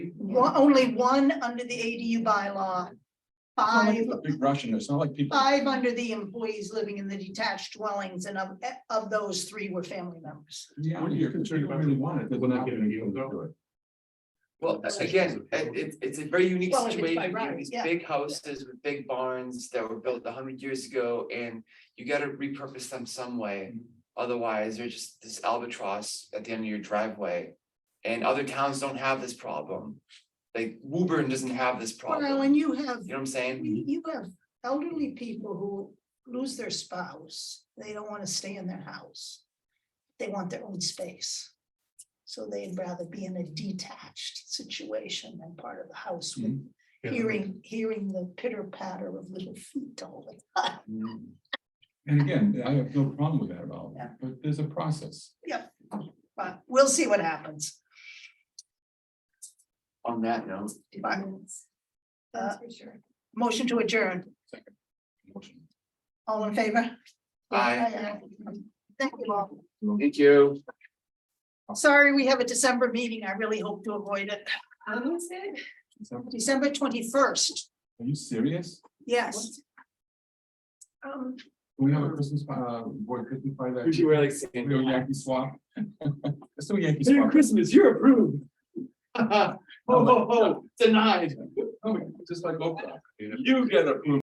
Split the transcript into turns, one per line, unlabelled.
one, only one under the ADU bylaw.
It's not like
Five,
it's a Big Russian, it's not like people,
five under the employees living in the detached dwellings, and of, eh, of those three were family members.
yeah,
What are you
you're concerned
concerned
about
about?
really want it. but
We're not
now
giving
we
you
can
a go.
do it.
Well, again, it- it's, it's a very unique
Well, if it's by
situation, you
right,
have these
yeah.
big houses with big barns that were built a hundred years ago, and you gotta repurpose them some way. Otherwise, they're just this albatross at the end of your driveway, and other towns don't have this problem. Like Woburn doesn't have this
Well,
problem,
and you have
you know what I'm saying?
You you have elderly people who lose their spouse, they don't wanna stay in their house. They want their own space. So they'd rather be in a detached situation than part of the house with
Yeah.
hearing, hearing the pitter patter of little feet all the time.
And again, I have no problem with that at all,
Yeah.
but there's a process.
But we'll see what happens.
On that note,
But, uh,
for sure.
motion to adjourn,
Motion.
all in favor?
Aye.
Thank you all.
thank you.
Sorry, we have a December meeting. I really hope to avoid it.
So, Are
December twenty-first,
you serious?
yes. Um,
We have a Christmas, uh, boy, Christmas party that.
Usually we're like
We
saying-
go Yankee swap. Let's do a Yankee
Merry
swap.
Christmas, you're approved. Ho, ho, ho, denied,
Oh, Just like Oprah.
you get approved.